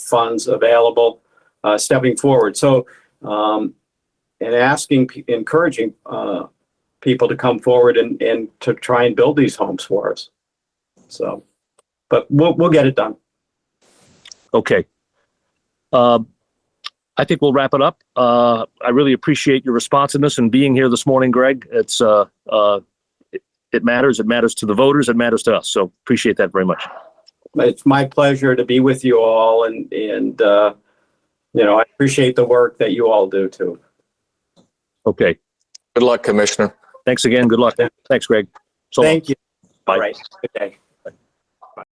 funds available uh, stepping forward. So, um, and asking, pe- encouraging uh, people to come forward and, and to try and build these homes for us. So, but we'll, we'll get it done. Okay. Um, I think we'll wrap it up. Uh, I really appreciate your responsiveness and being here this morning, Greg. It's, uh, uh, it- it matters. It matters to the voters. It matters to us. So appreciate that very much. It's my pleasure to be with you all and, and, uh, you know, I appreciate the work that you all do too. Okay. Good luck, Commissioner. Thanks again. Good luck. Thanks, Greg. So long. Thank you. Bye. All right. Good day.